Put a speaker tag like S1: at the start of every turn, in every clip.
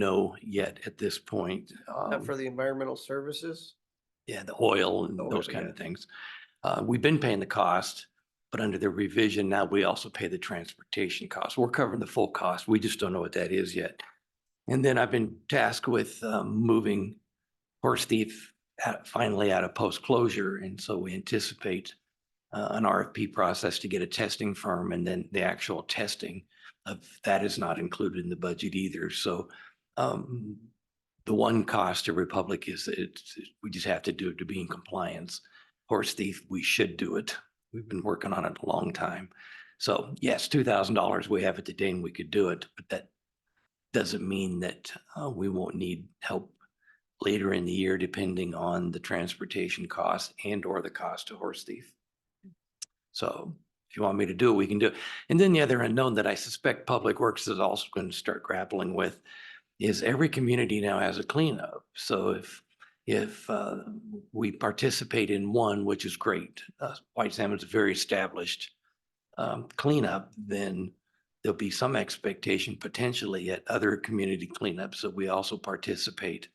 S1: know yet at this point. um,
S2: Not for the environmental services?
S1: Yeah, the oil and
S2: The oil,
S1: those kind
S2: yeah.
S1: of things. Uh, we've been paying the cost, but under the revision, now we also pay the transportation cost. We're covering the full cost. We just don't know what that is yet. And then I've been tasked with, um, moving horse thief out, finally out of post-closure. And so we anticipate uh, an RFP process to get a testing firm and then the actual testing of that is not included in the budget either. So, um, the one cost to Republic is that it's, we just have to do it to be in compliance. Horse thief, we should do it. We've been working on it a long time. So yes, two thousand dollars, we have it today and we could do it, but that doesn't mean that uh, we won't need help later in the year, depending on the transportation cost and or the cost to horse thief. So if you want me to do it, we can do it. And then the other unknown that I suspect Public Works is also going to start grappling with is every community now has a cleanup. So if, if uh, we participate in one, which is great, uh, White Salmon's a very established um, cleanup, then there'll be some expectation potentially at other community cleanups that we also participate.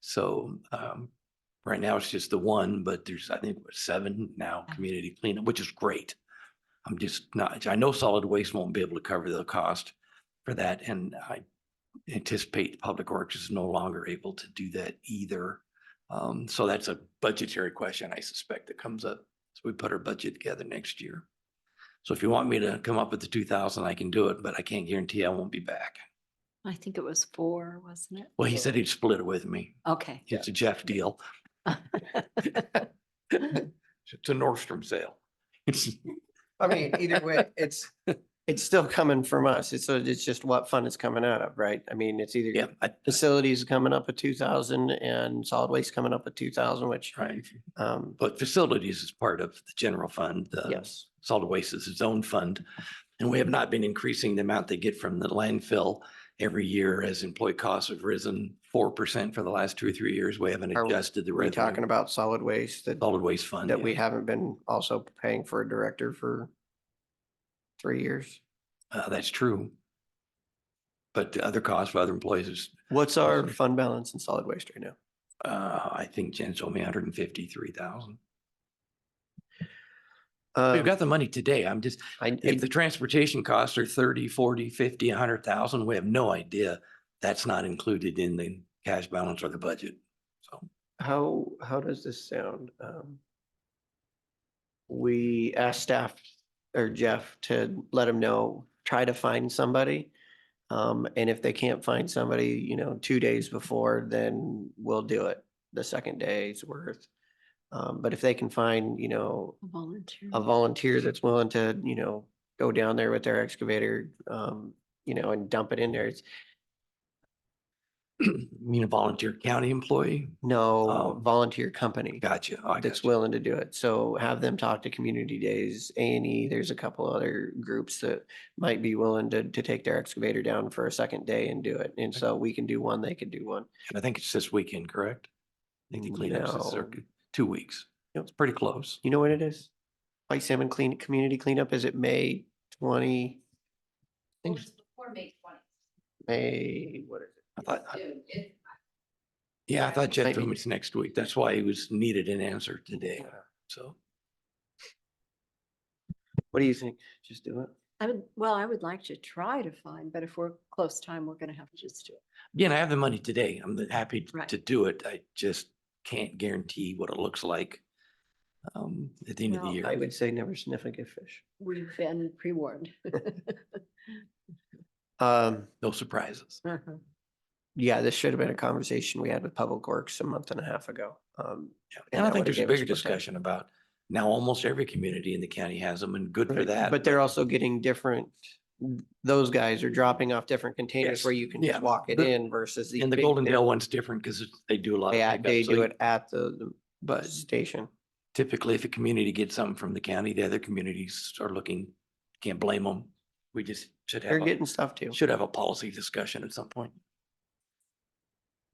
S1: So um, right now it's just the one, but there's, I think, what, seven now
S3: Yeah.
S1: community cleanup, which is great. I'm just not, I know solid waste won't be able to cover the cost for that, and I anticipate Public Works is no longer able to do that either. Um, so that's a budgetary question, I suspect, that comes up as we put our budget together next year. So if you want me to come up with the two thousand, I can do it, but I can't guarantee I won't be back.
S3: I think it was four, wasn't it?
S1: Well, he said he'd split it with me.
S3: Okay.
S1: It's a Jeff deal. It's a Nordstrom sale. It's,
S2: I mean, either way, it's, it's still coming from us. It's, so it's just what fund it's coming out of, right? I mean, it's
S1: yeah,
S2: either
S1: I, that's
S2: facilities coming up at two thousand and solid waste coming up at two thousand, which,
S1: right.
S2: um,
S1: But facilities is part of the general fund. the
S2: yes.
S1: solid waste is its own fund. And we have not been increasing the amount they get from the landfill every year as employee costs have risen four percent for the last two or three years. We haven't
S2: Are we-
S1: adjusted the
S2: Are we talking
S1: revenue.
S2: about solid waste that,
S1: Solid waste fund.
S2: that
S1: yeah.
S2: we haven't been also paying for a director for three years?
S1: Uh, that's true. But the other cost for other employees is,
S2: What's our fund balance in solid waste right now?
S1: uh, I think Jen told me hundred and fifty-three thousand.
S2: Uh, Oh.
S1: We've got the money today. I'm just,
S2: Um, I,
S1: if the transportation costs are thirty, forty, fifty, a hundred thousand, we have no idea. That's not included in the cash balance or the budget. So.
S2: How, how does this sound? Um, We asked staff or Jeff to let him know, try to find somebody. Um, and if they can't find somebody, you know, two days before, then we'll do it the second day's worth. Um, but if they can find, you know,
S3: Volunteer.
S2: a volunteer that's willing to, you know, go down there with their excavator, um, you know, and dump it in there, it's
S1: You mean a volunteer county employee?
S2: no
S1: Oh.
S2: volunteer company.
S1: Gotcha. Oh, I
S2: that's
S1: gotcha.
S2: willing to do it. So have them talk to Community Days, A and E. There's a couple other groups that might be willing to, to take their excavator down for a second day and do it. And so we can do one, they can do one.
S1: I think it's this weekend, correct? I think the cleanup's this
S2: No.
S1: circuit, two weeks.
S2: Yep.
S1: It's pretty close.
S2: You know what it is? White Salmon Clean, Community Cleanup, is it May twenty?
S4: It
S2: Thanks.
S4: was before May twentieth.
S2: May, what is
S1: I thought, I-
S4: It
S1: yeah, I thought Jeff
S2: Might be-
S1: told me it's next week. That's why he was needed an answer today.
S2: it?
S1: So
S2: What do you think? Just do it?
S3: I would, well, I would like to try to find, but if we're close time, we're gonna have to just do it.
S1: again, I have the money today. I'm happy t-
S3: Right.
S1: to do it. I just can't guarantee what it looks like um, at the end of the
S3: Well,
S1: year.
S2: I would say never sniff a good fish.
S3: We've been pre-warned.
S2: Um,
S1: No surprises.
S3: Mhm.
S2: yeah, this should have been a conversation we had with Public Works a month and a half ago. Um,
S1: Yeah.
S2: And
S1: And I
S2: that
S1: think
S2: would've
S1: there's a
S2: gave
S1: bigger
S2: us more time.
S1: discussion about now almost every community in the county has them and good for
S2: Right,
S1: that.
S2: But they're also getting different, those guys are dropping off different containers where
S1: Yes,
S2: you can just
S1: yeah,
S2: walk it
S1: the-
S2: in versus. these
S1: And the
S2: big
S1: Golden
S2: thing-
S1: Dale one's different because they do a lot. of
S2: Yeah,
S1: pickup,
S2: they
S1: so you-
S2: do it at the, the
S1: But
S2: station.
S1: typically, if a community gets something from the county, the other communities are looking, can't blame them. We just should
S2: They're
S1: have, a-
S2: getting stuff too.
S1: should have a policy discussion at some point.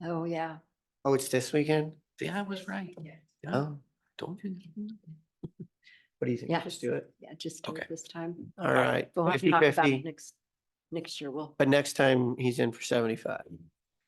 S3: Oh, yeah.
S2: Oh, it's this weekend?
S1: See, I was
S4: this
S1: right.
S4: weekend.
S1: Yeah,
S2: Oh,
S1: Told you.
S2: what do you think?
S3: Yeah.
S2: Just do it.
S3: Yeah, just do it
S1: Okay.
S3: this time.
S2: All right,
S3: We'll have to
S2: fifty
S3: talk about it
S2: fifty.
S3: next, next year. We'll,
S2: But next time he's in for seventy-five.